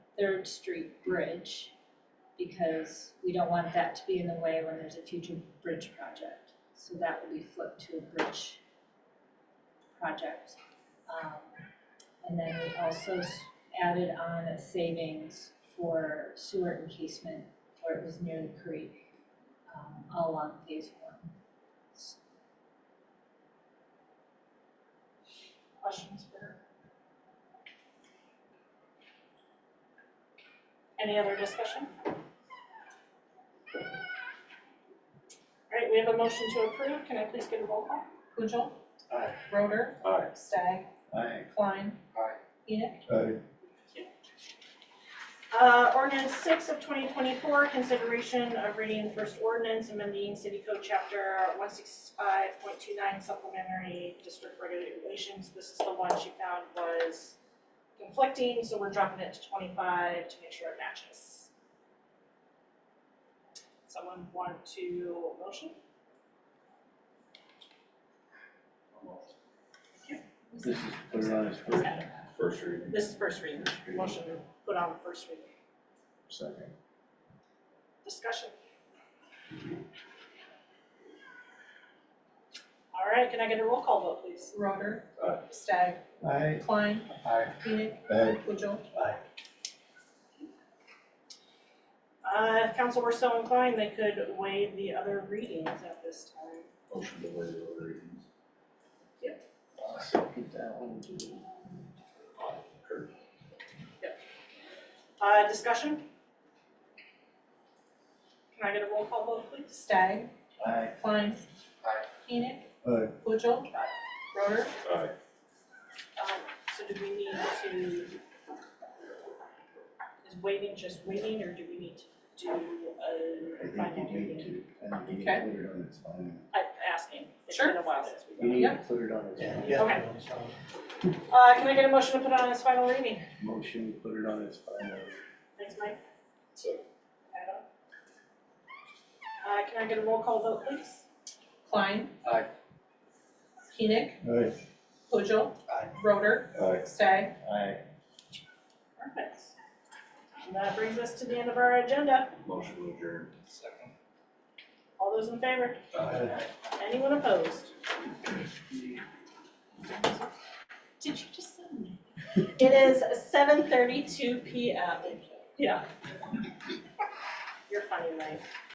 Third Street Bridge, because we don't want that to be in the way when there's a future bridge project. So that will be flipped to a bridge project. Um, and then we also s- added on a savings for sewer encasement where it was near the creek, um, all along phase one. questions for her? Any other discussion? Alright, we have a motion to approve, can I please get a roll call? Pujol. Aye. Roder. Aye. Stagg. Aye. Klein. Aye. Enoch. Aye. Uh, ordinance six of twenty twenty-four, consideration of reading first ordinance amending city code chapter one sixty-five point two nine supplementary district regulations. This is the one she found was conflicting, so we're dropping it to twenty-five to make sure it matches. Someone want to motion? This is put it on his first, First reading. This is first reading, First reading. motion to put on first reading, Second. discussion. All right, can I get a roll call vote, please? Roder. Aye. Stagg. aye, Klein. Aye. Enoch. aye, Pujol. Uh, if council were so inclined, they could waive the other readings at this time. Motion to waive the other readings. get that one too. Kurt. Uh, discussion? Can I get a roll call vote, please? Stagg. Aye, Klein. Aye. Enoch. aye, Pujol. Roder. Aye. Um, so do we need to, is waiting just waiting, or do we need to do uh, I a final think you need reading? to, and you need to Okay. put it on its final. I'm asking, it's been a while since You we've need done to put it on its final. Okay. it. Uh, can I get a motion to put on its final reading? Motion, put it on its final. Thanks, Mike. Second. Adam? Uh, can I get a roll call vote, please? Klein. Aye. Enoch. Aye. Pujol. Aye. Roder. Aye. Stagg. Aye. Perfect. And that brings us to the end of our agenda. Motion to adjourn. Second. All those in favor? Aye. Anyone opposed? Did you just send me? It is seven thirty-two P M. Yeah. You're funny, Mike.